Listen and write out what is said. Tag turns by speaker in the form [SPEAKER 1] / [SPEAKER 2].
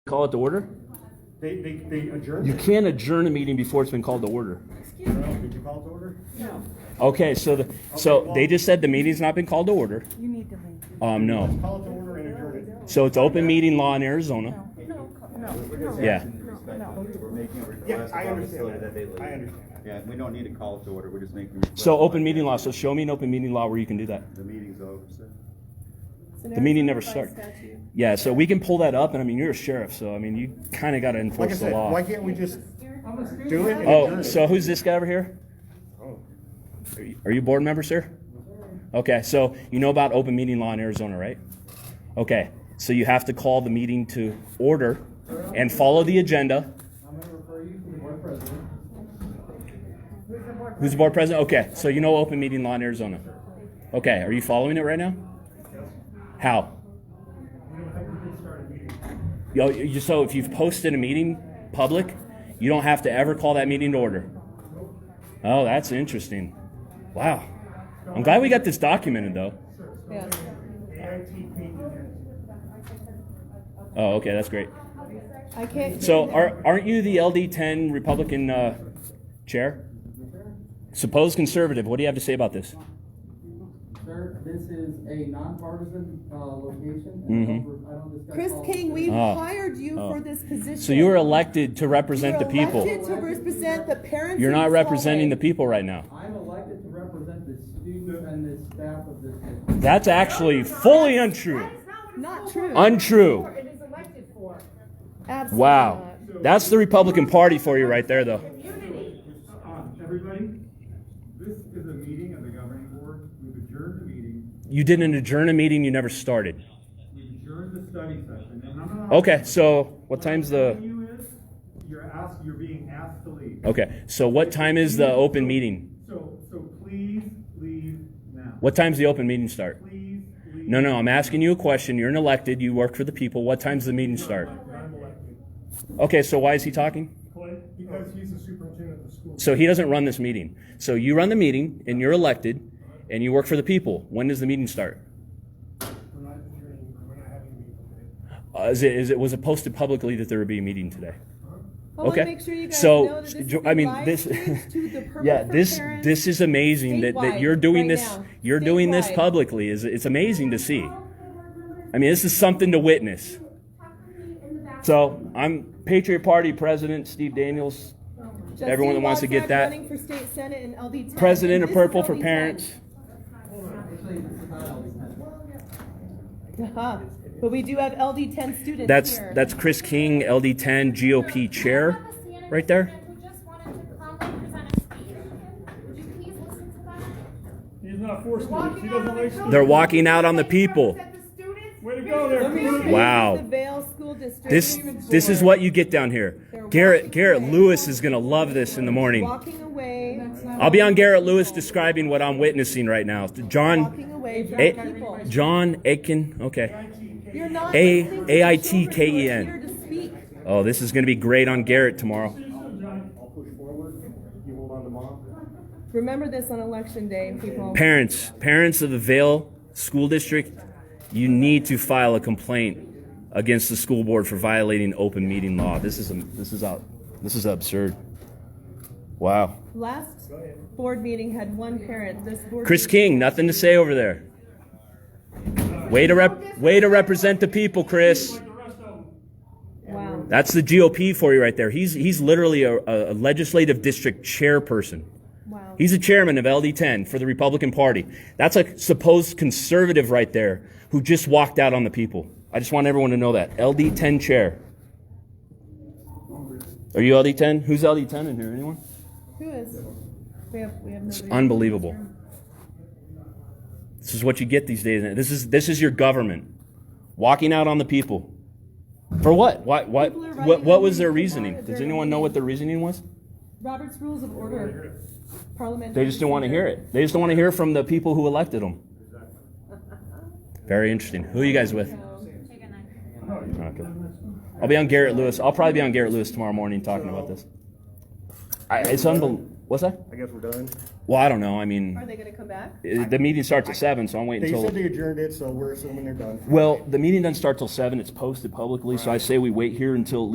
[SPEAKER 1] Call it to order?
[SPEAKER 2] They, they, they adjourned?
[SPEAKER 1] You
[SPEAKER 2] it.
[SPEAKER 1] can't adjourn a meeting before it's been called to order.
[SPEAKER 2] Well, Did you call it to order?
[SPEAKER 1] Okay, so, the- so they just said the meeting's not been called to order.
[SPEAKER 3] You need to leave.
[SPEAKER 1] Um, no.
[SPEAKER 2] Call it to order and adjourn it.
[SPEAKER 1] So it's open meeting law in Arizona.
[SPEAKER 3] No, no, no.
[SPEAKER 1] Yeah.
[SPEAKER 3] No.
[SPEAKER 4] We're making a
[SPEAKER 2] Yeah,
[SPEAKER 4] request,
[SPEAKER 2] I
[SPEAKER 4] obviously,
[SPEAKER 2] understand
[SPEAKER 4] that they leave.
[SPEAKER 2] that. I understand that.
[SPEAKER 4] Yeah, we don't need to call it to order, we're just making. a request
[SPEAKER 1] So open
[SPEAKER 4] like
[SPEAKER 1] meeting
[SPEAKER 4] that.
[SPEAKER 1] law, so show me an open meeting law where you can do that.
[SPEAKER 4] The meeting's over, so.
[SPEAKER 1] The meeting never started. Yeah, so we can pull that up, and I mean, you're a sheriff, so I mean, you kinda gotta
[SPEAKER 2] Like I
[SPEAKER 1] enforce the
[SPEAKER 2] said, why
[SPEAKER 1] law.
[SPEAKER 2] can't we just do it and adjourn
[SPEAKER 1] Oh,
[SPEAKER 2] it?
[SPEAKER 1] so who's this guy over here? Are you- Are you a board member, sir? Okay, so you know about open meeting law in Arizona, right? Okay, so you have to call the meeting to order and follow the agenda.
[SPEAKER 5] I'm gonna refer you to the board president.
[SPEAKER 1] Who's the board president? Okay, so you know open meeting law in Arizona. Okay, are you following it right now? How? Yo, you, so if you've posted a meeting public, you don't have to ever call that meeting to order. Oh, that's interesting. Wow. I'm glad we got this documented though.
[SPEAKER 3] Yes.
[SPEAKER 1] Oh, okay, that's great.
[SPEAKER 3] I can't.
[SPEAKER 1] So are, aren't you the LD10 Republican uh, chair? Supposed conservative. What do you have to say about this?
[SPEAKER 5] Sir, this is a nonpartisan, uh, location. and I don't- I don't discuss
[SPEAKER 6] Chris
[SPEAKER 5] politics.
[SPEAKER 6] King, we
[SPEAKER 1] Oh.
[SPEAKER 6] hired you
[SPEAKER 1] Oh.
[SPEAKER 6] for this position.
[SPEAKER 1] So you were elected to
[SPEAKER 6] You were
[SPEAKER 1] represent the people.
[SPEAKER 6] elected to represent the parents.
[SPEAKER 1] You're
[SPEAKER 6] in
[SPEAKER 1] not
[SPEAKER 6] this
[SPEAKER 1] representing the
[SPEAKER 6] hallway.
[SPEAKER 1] people right now.
[SPEAKER 5] I'm elected to represent the students and the staff of this district.
[SPEAKER 1] That's actually fully untrue.
[SPEAKER 6] Not true.
[SPEAKER 1] Untrue.
[SPEAKER 6] Absolutely
[SPEAKER 1] Wow. That's the Republican Party for you right there, though.
[SPEAKER 7] Uh, Everybody, this is a meeting of the governing board. We've adjourned the meeting.
[SPEAKER 1] You didn't adjourn a meeting you never started.
[SPEAKER 7] We've adjourned the study session. And I'm not.
[SPEAKER 1] Okay, so what time's
[SPEAKER 7] I'm telling
[SPEAKER 1] the. Oh.
[SPEAKER 7] you is, You're asked, you're being asked to leave.
[SPEAKER 1] Okay, so what time is the open meeting?
[SPEAKER 7] So, so please leave now.
[SPEAKER 1] What time's the open meeting start?
[SPEAKER 7] Please leave.
[SPEAKER 1] No, no, I'm asking you a question. You're an elected, you work for the people. What time's the meeting start?
[SPEAKER 7] I'm elected.
[SPEAKER 1] Okay, so why is he talking?
[SPEAKER 7] Because he's the superintendent of the school.
[SPEAKER 1] So he doesn't run this meeting. So you run the meeting and you're elected and you work for the people. When does the meeting start?
[SPEAKER 7] We're not adjourning, we're not having a meeting.
[SPEAKER 1] Uh, is it, is it, was it posted publicly that there would be a meeting today?
[SPEAKER 6] I want
[SPEAKER 1] Okay.
[SPEAKER 6] to make sure you guys
[SPEAKER 1] So,
[SPEAKER 6] know that this
[SPEAKER 1] jo-
[SPEAKER 6] is
[SPEAKER 1] I mean,
[SPEAKER 6] live
[SPEAKER 1] this-
[SPEAKER 6] streamed to the purple
[SPEAKER 1] yeah
[SPEAKER 6] for
[SPEAKER 1] this
[SPEAKER 6] parents.
[SPEAKER 1] this is amazing that, that you're
[SPEAKER 6] Statewide,
[SPEAKER 1] doing
[SPEAKER 6] right
[SPEAKER 1] this
[SPEAKER 6] now.
[SPEAKER 1] you're doing this
[SPEAKER 6] Statewide.
[SPEAKER 1] publicly is it's amazing to see i mean this is something to witness so i'm patriot party president steve daniels
[SPEAKER 6] Justine
[SPEAKER 1] everyone that wants to get
[SPEAKER 6] Wozniak
[SPEAKER 1] that.
[SPEAKER 6] running for state senate and LD 10,
[SPEAKER 1] president
[SPEAKER 6] and
[SPEAKER 1] of
[SPEAKER 6] this is
[SPEAKER 1] purple for
[SPEAKER 6] LD10.
[SPEAKER 1] parents
[SPEAKER 5] Actually, this is not always happening.
[SPEAKER 6] Uh-huh. But we do have LD ten students
[SPEAKER 1] that's
[SPEAKER 6] here.
[SPEAKER 1] that's chris king ld10 gop chair right there
[SPEAKER 7] He's not forced to. He doesn't like to.
[SPEAKER 1] they're walking out on the people
[SPEAKER 7] Way to go
[SPEAKER 6] Let me
[SPEAKER 7] there.
[SPEAKER 6] see.
[SPEAKER 1] Wow.
[SPEAKER 6] This is The Vale School District.
[SPEAKER 1] this this is what you get down here garrett garrett lewis is going to love this in the morning
[SPEAKER 6] Walking away,
[SPEAKER 1] i'll be on garrett lewis describing what i'm witnessing right now john
[SPEAKER 6] walking away from
[SPEAKER 1] A-
[SPEAKER 6] people.
[SPEAKER 1] John Aiken. Okay.
[SPEAKER 6] You're not
[SPEAKER 1] A-
[SPEAKER 6] listening to
[SPEAKER 1] A-I-T-K-E-N.
[SPEAKER 6] the children who are here to speak.
[SPEAKER 1] Oh, this is going to be great on Garrett tomorrow.
[SPEAKER 2] I'll push forward, you hold on to mom.
[SPEAKER 6] Remember this on election day, people.
[SPEAKER 1] Parents, parents of the Vale School District, you need to file a complaint against the school board for violating open meeting law. This is a, this is out. This is absurd. Wow.
[SPEAKER 6] Last board meeting had one parent. This board.
[SPEAKER 1] Chris
[SPEAKER 6] meeting-
[SPEAKER 1] King, nothing to say over there. Way to rep, way to represent the people, Chris.
[SPEAKER 6] Wow.
[SPEAKER 1] That's the GOP for you right there. He's he's literally a, a legislative district chairperson.
[SPEAKER 6] Wow.
[SPEAKER 1] He's the chairman of LD10 for the Republican Party. That's a supposed conservative right there who just walked out on the people. I just want everyone to know that. LD10 chair. Are you LD10? Who's LD10 in here? Anyone?
[SPEAKER 6] Who is? We have we have nobody.
[SPEAKER 1] Unbelievable. This is what you get these days. This is this is your government walking out on the people. For what? Why, why,
[SPEAKER 6] People are
[SPEAKER 1] what?
[SPEAKER 6] running
[SPEAKER 1] What
[SPEAKER 6] on
[SPEAKER 1] was their
[SPEAKER 6] meetings
[SPEAKER 1] reasoning?
[SPEAKER 6] tomorrow.
[SPEAKER 1] Does
[SPEAKER 6] They're
[SPEAKER 1] anyone know what their reasoning was?
[SPEAKER 6] Robert's Rules of Order. Parliament.
[SPEAKER 1] They just didn't want to hear it. They just don't want to hear from the people who elected them. Very interesting. Who are you guys with? Okay. I'll be on Garrett Lewis. I'll probably be on Garrett Lewis tomorrow morning talking about this. I, it's unbelievable. What's that?
[SPEAKER 7] I guess we're done.
[SPEAKER 1] Well, I don't know. I mean,
[SPEAKER 6] Are they gonna come back?
[SPEAKER 1] i- the meeting starts at seven, so I'm waiting
[SPEAKER 7] They
[SPEAKER 1] until.
[SPEAKER 7] said they adjourned it, so we're assuming they're done.
[SPEAKER 1] Well, the meeting doesn't start till seven. It's posted publicly, so I say we wait here until at